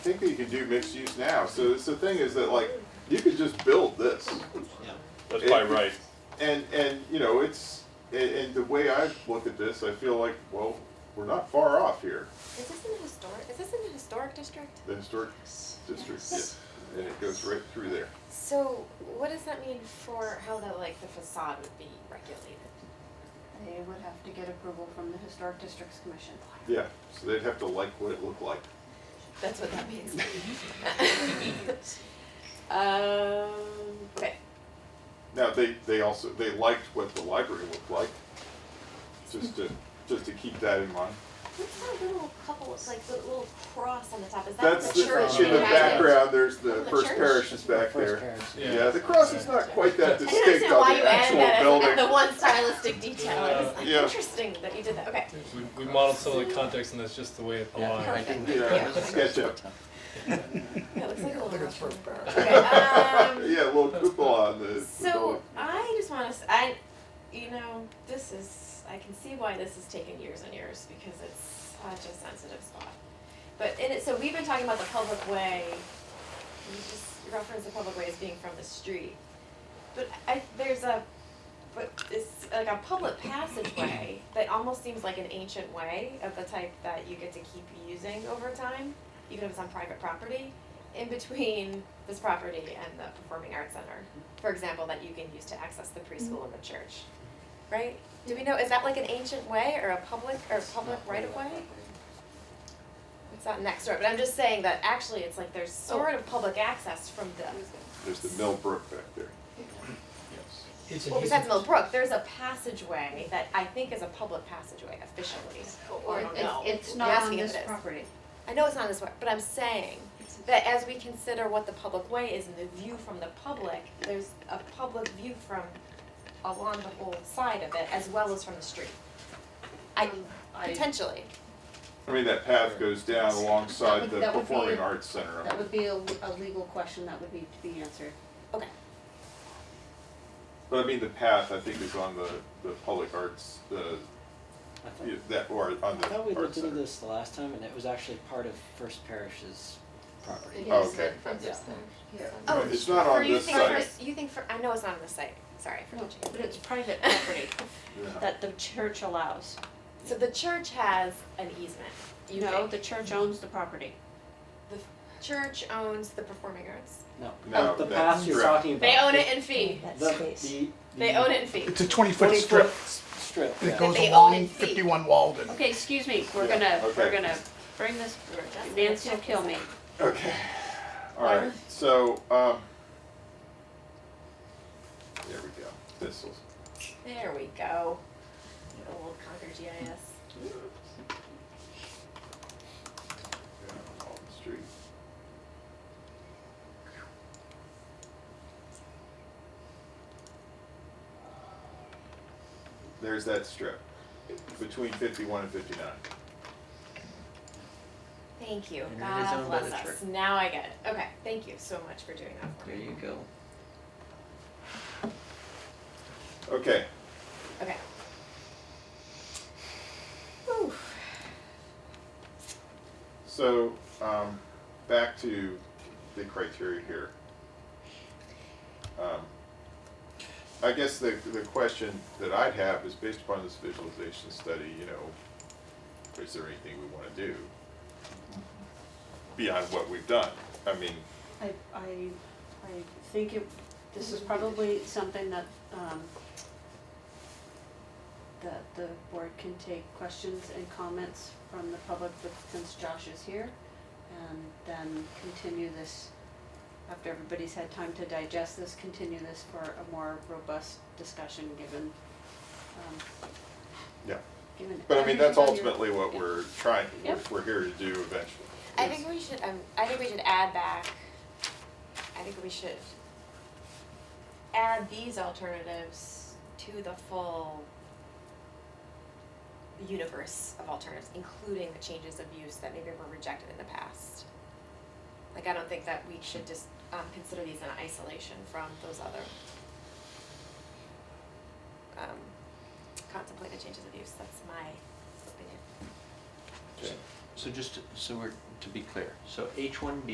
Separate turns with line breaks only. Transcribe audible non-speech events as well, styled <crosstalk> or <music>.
think that you can do mixed use now. So it's the thing is that like you could just build this,
yeah.
That's by right.
and and you know it's and, and the way I look at this, I feel like well we're not far off here.
Is this in a historic, is this in a historic district?
The historic district, yes, and it goes right through there.
So what does that mean for how the, like, the facade would be regulated?
They would have to get approval from the Historic Districts Commission.
Yeah, so they'd have to like what it looked like.
That's what that means. <laughs> Um, okay,
Now they they also they liked what the library looked like, just to just to keep that in mind.
what's that little couple, it's like the little cross on the top, is that
That's
the church?
the, in the
behind it?
background. There's the,
The
first
church?
parish is back there.
Yeah.
Yeah. the cross is not quite that
I don't
distinct
understand
on
why you
the
added
actual
that as like
building.
the
<laughs>
one stylistic detail, it's like
Yeah.
interesting that you did that, okay.
We, we modeled some of the context, and that's just the way it aligned.
Oh,
Perfect.
Yeah, SketchUp.
Yeah, it looks like a little.
it's first paragraph.
Okay, um.
Yeah, a little cupola on the, the
So
building.
I just want to, I, you know, this is, I can see why this has taken years and years because it's such a sensitive spot. But in it, so we've been talking about the public way, you just reference the public way as being from the street. But I, there's a, but it's like a public passageway that almost seems like an ancient way of the type that you get to keep using over time, even if it's on private property, in between this property and the Performing Arts Center for example, that you can use to access the preschool and the church, right? Do we know, is that like an ancient way or a public, or a public right of way? It's not next door, but I'm just saying that actually it's like there's sort of public access from the,
There's the Millbrook back there.
It's an
well,
easy,
besides Mill Brook, there's a passageway that I think is a public passageway officially.
Or
Oh, I don't know.
it's, it's
You're
not on
asking if
this
it is.
property.
I know it's not this way, but I'm saying that as we consider what the public way is and the view from the public, there's a public view from along the whole side of it as well as from the street. Um, I,
Um,
potentially,
I mean, that path goes down alongside
That would-
the
that would be-
Performing Arts Center.
That would be a, a legal question that would need to be answered.
okay,
But I mean, the path, I think, is on the, the public arts, the,
I thought-
yeah, that, or on
I thought we
the arts
looked into
center.
this the last time, and it was actually part of First Parish's property.
Oh, okay.
Oh,
It's not
for
on
you
this
think
side.
for, you think for, I know it's not on this site, sorry for touching.
But it's private property
Yeah.
that the church allows.
So the church has an easement, you
You know,
think?
the church owns the property.
The church owns the performing arts.
No,
No,
the
that's
path you're
correct.
talking about.
They own it in fee,
The, the,
they own it in fee.
it's a twenty foot
Twenty
strip
foot strip,
that
yeah.
goes
They own
along
it feet.
fifty one Walden.
Okay, excuse me, we're
Yeah,
gonna,
okay.
we're gonna bring this, Nancy will kill me.
Okay, all right, so, um, there we go, this will
There we go. Old Concord GIS.
Yeah, on the street. There's that strip between 51 and 59.
Thank you.
And it is
God
owned by
bless
the
us.
church.
Now I get it. Okay. Thank you so much for doing that for
There
me.
you go.
Okay,
Okay. Whew.
so um, back to the criteria here. Um, I guess the, the question that I'd have is based upon this visualization study, you know, is there anything we want to do beyond what we've done? I mean,
I, I
I think it,
this is probably something that, um, that the board can take questions and comments from the public, but since Josh is here, and then continue this, after everybody's had time to digest this, continue this for a more robust discussion, given, um,
yeah.
given.
But I mean, that's
everything on your-
ultimately what we're trying, we're,
Yep.
we're here to do eventually.
I
is-
think we should. Um, I think we should add back. I think we should add these alternatives to the full universe of alternatives, including the changes of use that maybe were rejected in the past. Like, I don't think that we should just um, consider these in isolation from those other um, contemplated changes of use. That's my opinion.
Okay.
So just, to- so we're, to be clear, so H one B